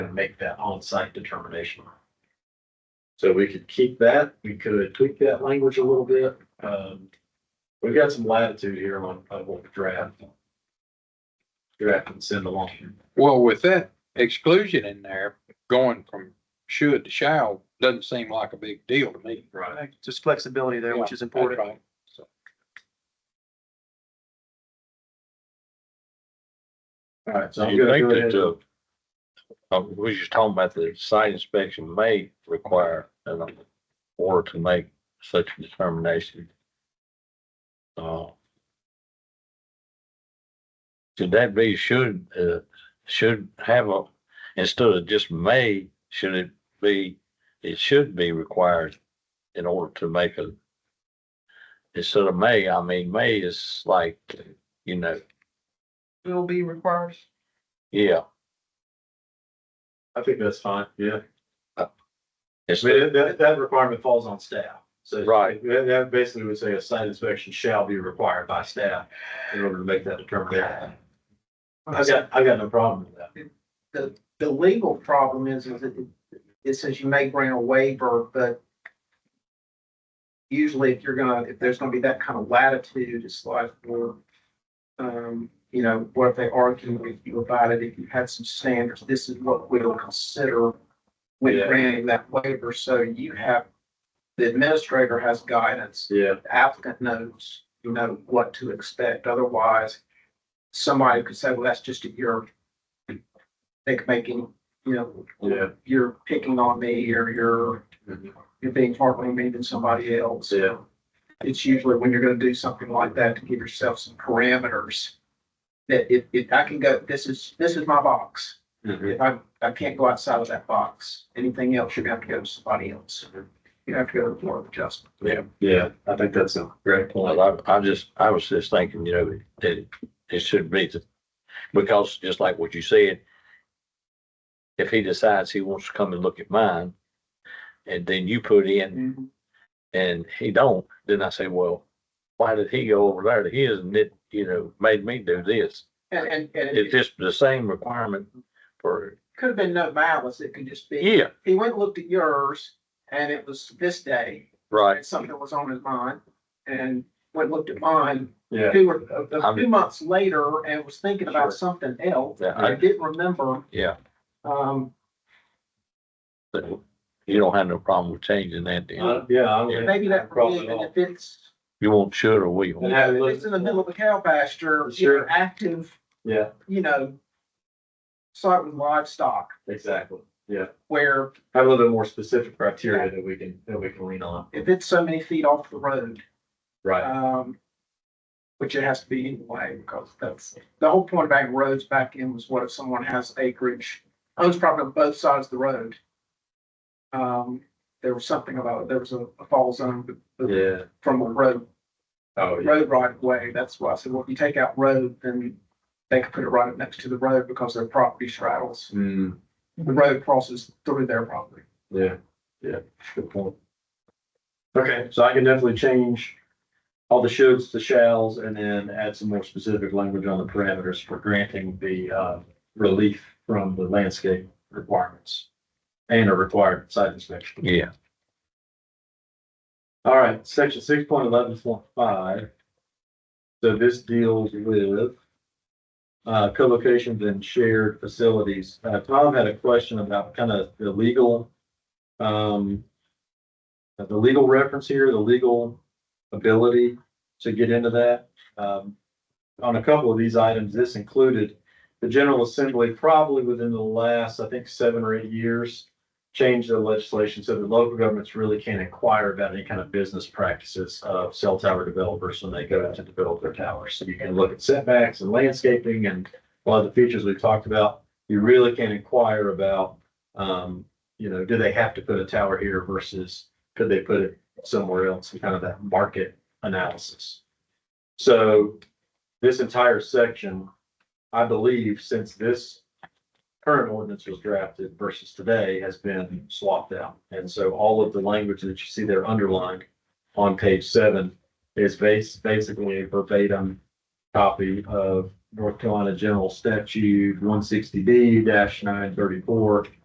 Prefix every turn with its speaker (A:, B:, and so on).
A: and make that on-site determination.
B: So we could keep that.
A: We could tweak that language a little bit. Um, we've got some latitude here on, on what we draft. Draft and send along.
C: Well, with that exclusion in there, going from should to shall doesn't seem like a big deal to me.
A: Right.
D: Just flexibility there, which is important.
C: That's right. So-
A: All right, so
E: Do
A: I'm
E: you
A: gonna
E: think
A: go ahead.
E: that, uh, uh, we just talking about the site inspection may require an order to make such a determination? Uh, Should that be, should, uh, should have a, instead of just may, should it be, it should be required in order to make a, instead of may, I mean, may is like, you know,
F: will be required.
E: yeah,
A: I think that's fine, yeah. I
E: instead,
A: mean, that, that requirement falls on staff. So
E: Right.
A: That, that basically would say a site inspection shall be required by staff in order to make that determination. I got, I got no problem with that.
F: The, the legal problem is, is it, it says you may grant a waiver, but usually if you're gonna, if there's gonna be that kind of latitude, it's like, well, um, you know, what if they argue with you about it, if you had some standards, this is what we'll consider when
A: Yeah.
F: granting that waiver, so you have, the administrator has guidance.
A: Yeah.
F: the applicant knows, you know, what to expect. Otherwise, somebody could say, well, that's just a year. They could make any, you know,
A: Yeah.
F: you're picking on me or you're,
A: Mm-hmm.
F: you're being harder on me than somebody else.
A: Yeah.
F: It's usually when you're gonna do something like that to give yourself some parameters. That if, if I can go, this is, this is my box.
A: Mm-hmm.
F: If I, I can't go outside of that box, anything else, you're gonna have to go to somebody else.
A: Mm-hmm.
F: You have to go to the board of adjustment.
A: Yeah, I think that's a great point.
E: Well, I, I just, I was just thinking, you know, that it- it should be, the- because just like what you said, if he decides he wants to come and look at mine, and then you put in, and he don't, then I say, well, why did he go over there to his and it, you know, made me do this?
F: And, and, and.
E: It's just the same requirement for,
F: could have been no malice. It could just be,
E: yeah,
F: he went and looked at yours and it was this day,
E: right,
F: and something was on his mind. And went and looked at mine,
A: Yeah.
F: two or, a- a
E: I'm-
F: few months later and was thinking
A: Sure.
F: about something else.
E: Yeah,
F: I
E: I-
F: didn't remember,
E: yeah.
F: um,
E: But You don't have no problem with changing that, do you?
A: Uh, Yeah. I don't
F: maybe
A: have a
F: that
A: problem at
F: provision,
A: all.
F: if it's,
E: You won't should or will.
A: And have it
F: if it's in the middle of a cow pasture,
A: Sure.
F: you're active,
A: Yeah,
F: you know, start with livestock
A: exactly. Yeah.
F: where
A: Have a little bit more specific criteria that we can, that we can lean on.
F: if it's so many feet off the road,
A: Right.
F: Um, which it has to be anyway, because that's, the whole point of adding roads back in was what if someone has acreage, owns property on both sides of the road. Um, there was something about, there was a a fall zone
A: Yeah.
F: from a road,
A: Oh, yeah.
F: road right of way, that's why I said, well, if you take out road, then they could put it right up next to the road because their property straddles,
A: Mm,
F: the road crosses through their property.
A: yeah, yeah, good point. Okay, so I can definitely change all the shoulds to shalls and then add some more specific language on the parameters for granting the, uh, relief from the landscape requirements and a required site inspection.
E: Yeah,
A: All right, section six point eleven point five. So this deals with. Uh, co-locations and shared facilities. Uh, Tom had a question about kind of the legal. Um. The legal reference here, the legal ability to get into that. Um. On a couple of these items, this included the General Assembly probably within the last, I think, seven or eight years change the legislation so that local governments really can't inquire about any kind of business practices of cell tower developers when they go out to develop their towers. So you can look at setbacks and landscaping and a lot of the features we've talked about. You really can inquire about, um, you know, do they have to put a tower here versus could they put it somewhere else? And Kind of that market analysis. So this entire section, I believe, since this current ordinance was drafted versus today has been swapped out. And so all of the language that you see there underlined on page seven is base, basically verbatim copy of North Carolina General Statute one sixty D nine thirty-four